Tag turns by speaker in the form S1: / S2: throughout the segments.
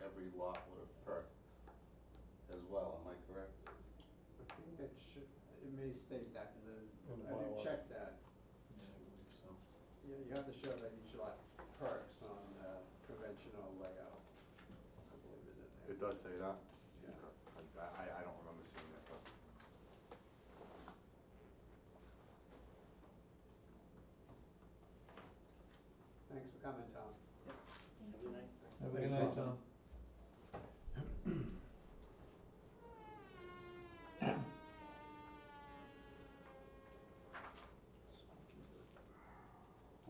S1: every lot would have perked as well, am I correct?
S2: I think that should, it may state that in
S3: In
S2: the,
S3: the
S2: I didn't
S3: bylaw.
S2: check that.
S1: Yeah, I believe so.
S2: You, you have to show that each lot perks on uh, conventional layout, I believe is in there.
S4: It does say that?
S2: Yeah.
S4: Okay. I, I- I don't remember seeing it, but.
S2: Thanks for coming, Tom.
S5: Have a good night.
S3: Have a good night, Tom.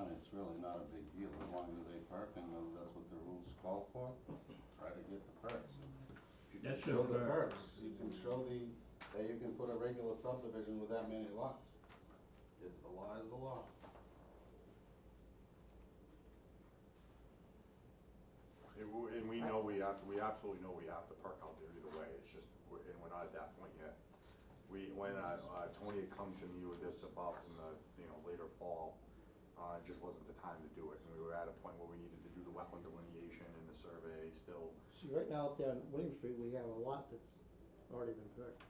S1: I mean, it's really not a big deal, as long as they perk and uh, that's what the rules call for, try to get the perks. If you can
S6: That should
S1: Show the
S6: work.
S1: perks, you can show the, that you can put a regular subdivision with that many lots. It, the law is the law.
S4: And we, and we know we have, we absolutely know we have to perk out there either way, it's just, we're- and we're not at that point yet. We, when, uh, uh, Tony had come to me with this about in the, you know, later fall, uh, it just wasn't the time to do it, and we were at a point where we needed to do the wetland delineation and the survey still.
S5: See, right now out there on William Street, we have a lot that's already been perked,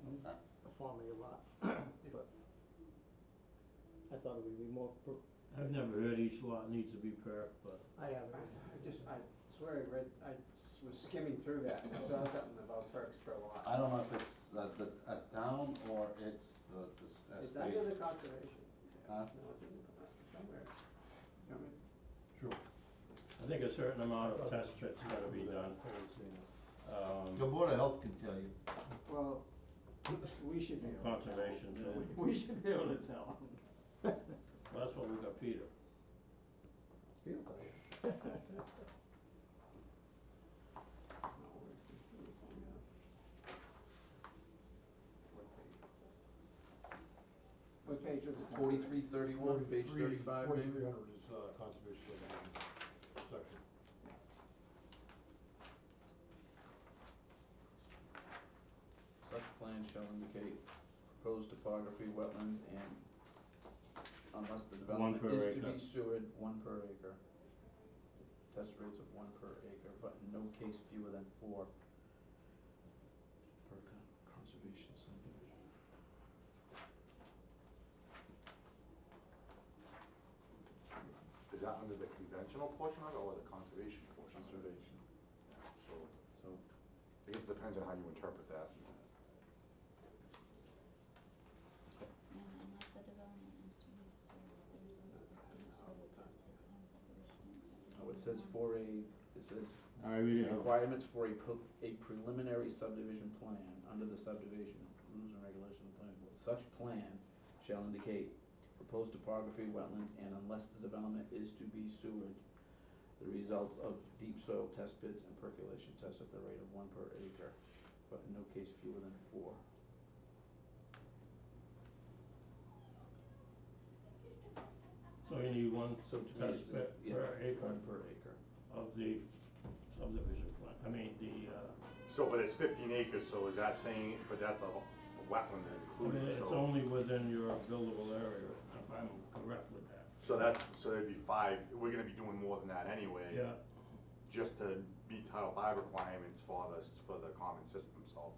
S1: Okay.
S5: a farm area lot, but I thought it would be more, pro-
S6: I've never heard each lot needs to be perked, but
S5: I haven't,
S2: I I just, I swear I read, I s- was skimming through that and saw something about perks per
S1: I
S2: lot.
S1: don't know if it's a, the, a town or it's the, the s-
S2: It's
S1: estate.
S2: under the conservation.
S1: Huh?
S2: No, it's in the- somewhere. You know what I mean?
S6: Sure. I think a certain amount of test pit's gotta be done.
S7: The
S6: Um,
S7: Board of Health can tell you.
S2: Well, we should be able to tell.
S6: Conservation, too.
S2: We should be able to tell.
S6: well, that's what we got Peter.
S5: feel like.
S2: No, where's the- where's the, uh, What page was it? What page was it?
S4: Forty-three thirty-one, page thirty-five,
S3: Forty-three hundred is, uh, conservation regulation section.
S8: Such plan shall indicate proposed topography, wetlands, and unless the
S6: One
S8: development
S6: per
S8: is to
S6: acre.
S8: be sewered, one per acre. Test rates of one per acre, but in no case fewer than four per con- conservation subdivision.
S4: Is that under the conventional portion of it or the conservation portion? Conservation. So,
S8: So,
S4: I guess it depends on how you interpret that.
S9: And unless the development is to be served, the results of the survey test pits and preparation.
S8: oh, it says for a, it says
S6: All right, we
S8: requirements for a pre- a preliminary subdivision plan under the subdivision rules and regulations of the planning board. Such plan shall indicate proposed topography, wetlands, and unless the development is to be sewered, the results of deep soil test pits and percolation tests at the rate of one per acre, but in no case fewer than four.
S6: So you need one
S8: So to me, it's,
S6: test pit
S8: yeah,
S6: per acre
S8: one per acre.
S6: of the subdivision plan, I mean, the, uh,
S4: So, but it's fifteen acres, so is that saying, but that's a wetland
S6: I mean,
S4: included,
S6: it's
S4: so.
S6: only within your buildable area, if I'm correct with that.
S4: So that's, so there'd be five, we're gonna be doing more than that anyway.
S6: Yeah,
S4: Just to meet Title V requirements for the, for the common system, so,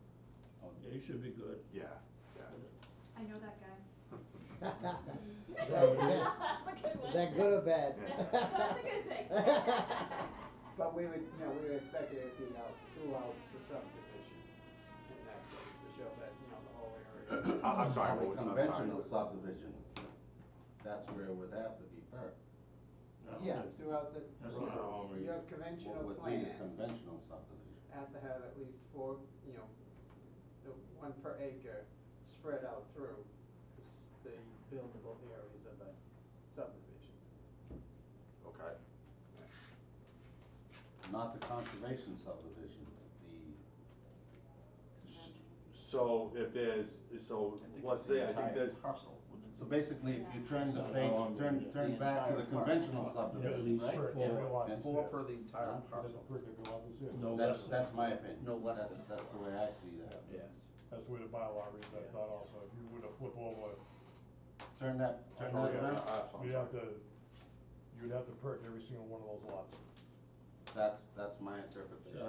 S6: yeah, you should be good.
S4: yeah, yeah.
S9: I know that guy.
S5: Is that- is that good or bad?
S9: That's a good thing.
S2: But we would, you know, we would expect it to be out throughout the subdivision in that case, to show that, you know, the whole area.
S4: I- I'm sorry, what was,
S1: A
S4: I'm sorry.
S1: Conventional subdivision, that's where it would have to be perked.
S6: I don't
S2: Yeah,
S6: think-
S2: throughout the,
S6: That's not all we-
S2: your
S1: What
S2: conventional
S1: would be a
S2: plan
S1: conventional subdivision?
S2: has to have at least four, you know, the one per acre spread out through the, s- the buildable areas of a subdivision.
S4: Okay,
S1: Not the conservation subdivision, the,
S8: S-
S4: so if there's, so, let's say, I think there's,
S8: Parcel.
S1: so basically, if you turn the
S6: Yeah.
S1: page,
S6: Oh, I'm
S1: turn,
S6: reading it.
S1: turn
S8: The
S1: back to the
S8: entire park.
S1: conventional
S6: Yeah, at
S1: subdivision,
S6: least
S1: right?
S6: for-
S3: Yeah, every lot is
S8: Four
S3: there.
S8: per the entire
S1: Huh?
S8: parcel,
S3: Doesn't perk every lot is in.
S6: No
S1: That's,
S6: less than-
S1: that's my opinion.
S8: No less
S1: That's,
S8: than-
S1: that's the way I see that.
S8: yes.
S3: That's the way the bylaw reads, I thought also, if you were to flip over,
S1: Turn that, turn
S3: Oh,
S1: that
S3: yeah.
S1: around,
S4: uh, so I'm
S3: you'd
S4: sorry.
S3: have to, you'd have to perk every single one of those lots.
S1: that's, that's my interpretation.
S6: So